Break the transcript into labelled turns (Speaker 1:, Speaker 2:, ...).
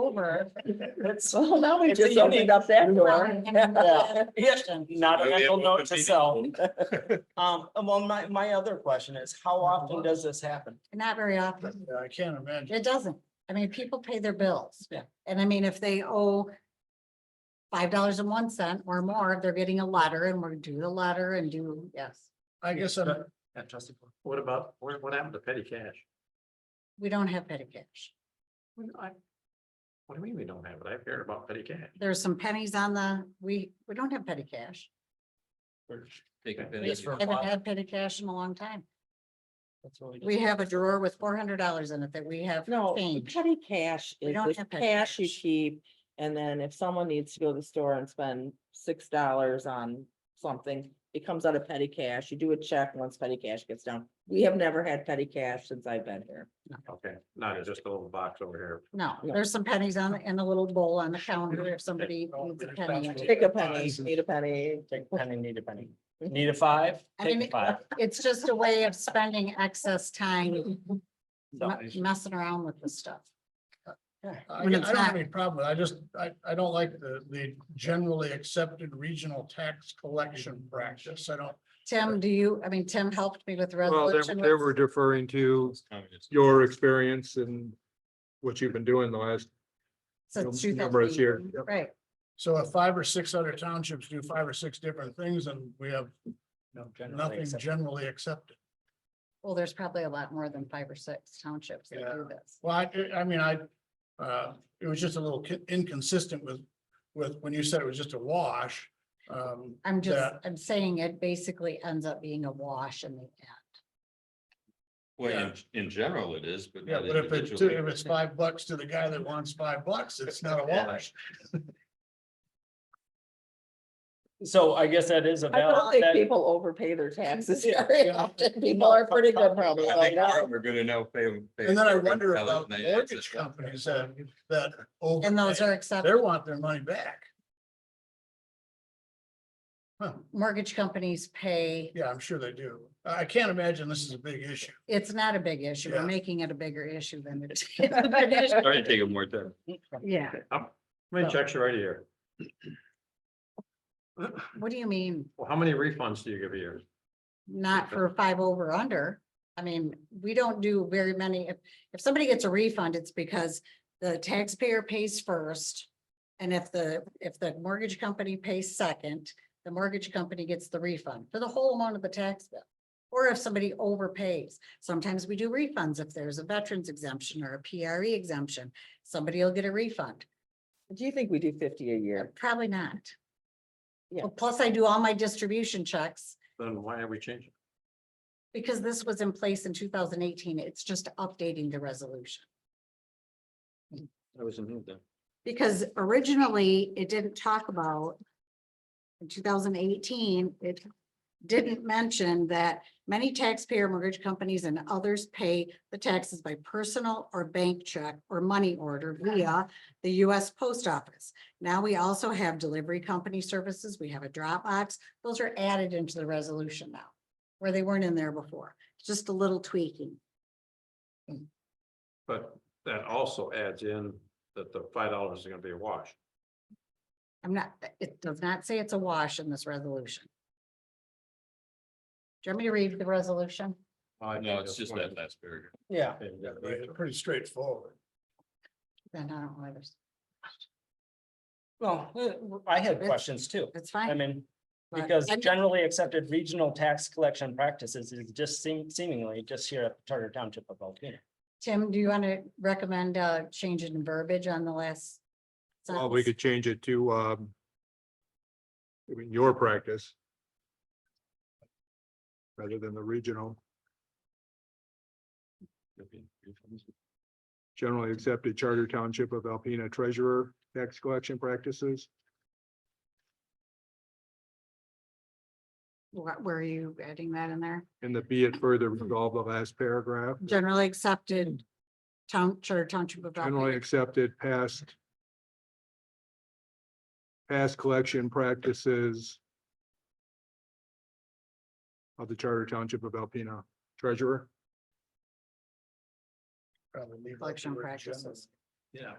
Speaker 1: over. That's.
Speaker 2: Well, now we
Speaker 1: It's
Speaker 2: just
Speaker 1: a
Speaker 2: opened
Speaker 1: unique-
Speaker 2: up that door.
Speaker 1: Yeah. Yeah, Not a
Speaker 3: Maybe
Speaker 1: mental
Speaker 3: it
Speaker 1: note
Speaker 3: would
Speaker 1: to
Speaker 3: be.
Speaker 1: self. Um, well, my, my other question is, how often does this happen?
Speaker 4: Not very often.
Speaker 5: I can't imagine.
Speaker 4: It doesn't. I mean, people pay their bills.
Speaker 1: Yeah.
Speaker 4: And I mean, if they owe five dollars and one cent or more, they're getting a letter and we're do the letter and do, yes.
Speaker 5: I guess I'm,
Speaker 6: Yeah, trustee, Paul. what about, what, what happened to petty cash?
Speaker 4: We don't have petty cash.
Speaker 6: What do you mean we don't have it? I've heard about petty cash.
Speaker 4: There's some pennies on the, we, we don't have petty cash.
Speaker 6: It's
Speaker 4: We Haven't had petty cash in a long time. We have a drawer with four hundred dollars in it that we have
Speaker 2: No, the
Speaker 4: changed.
Speaker 2: petty cash
Speaker 4: We
Speaker 2: is
Speaker 4: don't
Speaker 2: the
Speaker 4: have petty
Speaker 2: cash you
Speaker 4: cash.
Speaker 2: keep. And then if someone needs to go to the store and spend six dollars on something, it comes out of petty cash. You do a check once petty cash gets down. We have never had petty cash since I've been here.
Speaker 6: Okay, not it's just a little box over here.
Speaker 4: No,
Speaker 2: No.
Speaker 4: there's some pennies on, the- in a little bowl on the counter if somebody needs a penny.
Speaker 2: Take a penny, need a penny.
Speaker 1: Take a penny, need a penny. Need a five,
Speaker 4: I
Speaker 1: take
Speaker 4: mean,
Speaker 1: a five.
Speaker 4: It's just a way of spending excess time
Speaker 1: So,
Speaker 4: me- messing around with this stuff.
Speaker 5: I I
Speaker 4: When it's
Speaker 5: don't have
Speaker 4: not-
Speaker 5: any problem. with it. I just, I, I don't like the, the generally accepted regional tax collection practice. I don't.
Speaker 4: Tim, do you, I mean, Tim helped me with the
Speaker 7: Well, they
Speaker 4: resolution.
Speaker 7: they were deferring to your experience and what you've been doing the last
Speaker 4: Since two
Speaker 7: number of years.
Speaker 4: thousand.
Speaker 7: Yep.
Speaker 4: Right,
Speaker 5: So if five or six other townships do five or six different things and we have
Speaker 1: no, generally
Speaker 5: nothing
Speaker 1: accepted.
Speaker 5: generally accepted.
Speaker 4: well, there's probably a lot more than five or six townships that do this.
Speaker 5: Well, I, I mean, I, uh, it was just a little ki- inconsistent with, with, when you said it was just a wash. Um,
Speaker 4: I'm just,
Speaker 5: Yeah.
Speaker 4: I'm saying it basically ends up being a wash in the end.
Speaker 3: Well, in,
Speaker 5: Yeah.
Speaker 3: in general it is, but.
Speaker 5: yeah,
Speaker 3: not
Speaker 5: but if it's,
Speaker 3: individually.
Speaker 5: if it's five bucks to the guy that wants five bucks, it's not a wash.
Speaker 1: So I guess that is a
Speaker 2: I don't
Speaker 1: valid,
Speaker 2: think
Speaker 1: that,
Speaker 2: people overpay their taxes
Speaker 5: Yeah,
Speaker 2: very
Speaker 5: yeah.
Speaker 2: often. People are pretty good probably.
Speaker 3: I think
Speaker 2: about it.
Speaker 3: We're gonna know. fail- fail-
Speaker 5: And then I wonder
Speaker 3: fail
Speaker 5: about
Speaker 3: and they- it's
Speaker 5: mortgage
Speaker 3: just-
Speaker 5: companies that, that.
Speaker 4: And those
Speaker 5: overpay.
Speaker 4: are
Speaker 5: They
Speaker 4: accepted.
Speaker 5: want their money back. Huh,
Speaker 4: Mortgage companies pay,
Speaker 5: yeah, I'm sure they do. I can't imagine this is a big issue.
Speaker 4: it's not a big issue. We're
Speaker 5: Yeah.
Speaker 4: making it a bigger issue than it is.
Speaker 3: Sorry to take up more time.
Speaker 4: Yeah,
Speaker 6: How many checks you write a year?
Speaker 4: what do you mean?
Speaker 6: Well, how many refunds do you give a year?
Speaker 4: not for five over under. I mean, we don't do very many. If, if somebody gets a refund, it's because the taxpayer pays first. And if the, if the mortgage company pays second, the mortgage company gets the refund for the whole amount of the tax bill. Or if somebody overpays, sometimes we do refunds if there's a veterans exemption or a PRE exemption, somebody will get a refund.
Speaker 2: Do you think we do fifty a year?
Speaker 4: Probably not.
Speaker 2: Yeah.
Speaker 4: Well, Plus I do all my distribution checks.
Speaker 6: Then why have we changed? it?
Speaker 4: Because this was in place in two thousand eighteen, it's just updating the resolution.
Speaker 6: I wasn't here then.
Speaker 4: Because originally, it didn't talk about. In two thousand eighteen, it didn't mention that many taxpayer mortgage companies and others pay the taxes by personal or bank check or money order via the US Post Office. Now we also have delivery company services, we have a drop box. those are added into the resolution now, where they weren't in there before, just a little tweaking.
Speaker 6: But that also adds in that the five dollars is gonna be a wash.
Speaker 4: I'm not, uh, it does not say it's a wash in this resolution. Do you want me to read the resolution?
Speaker 6: I think
Speaker 3: No, it's
Speaker 6: that's
Speaker 3: just
Speaker 6: what-
Speaker 3: that last period.
Speaker 1: yeah.
Speaker 6: Okay, you got
Speaker 5: It's
Speaker 6: it.
Speaker 5: Pretty straightforward.
Speaker 4: Then I don't know, if there's-
Speaker 1: Well, uh, I had questions too.
Speaker 4: that's
Speaker 1: I
Speaker 4: fine.
Speaker 1: mean,
Speaker 4: but-
Speaker 1: because
Speaker 4: and-
Speaker 1: generally accepted regional tax collection practices is just seem seemingly just here at Charter Township of Alpena.
Speaker 4: Tim, do you want to recommend uh change in verbiage on the last?
Speaker 7: Well, we
Speaker 4: sentence?
Speaker 7: could change it to, um, I mean, your practice rather than the regional, generally accepted charter township of Alpena treasurer tax collection practices.
Speaker 4: Where where are you adding that in there?
Speaker 7: And the be it further resolved, the last paragraph,
Speaker 4: Generally accepted town, charter township of. Alpena.
Speaker 7: generally accepted past past collection practices of the charter township of Alpena treasurer.
Speaker 5: Probably leave out the
Speaker 4: Collection
Speaker 5: word
Speaker 4: practices.
Speaker 6: Yeah,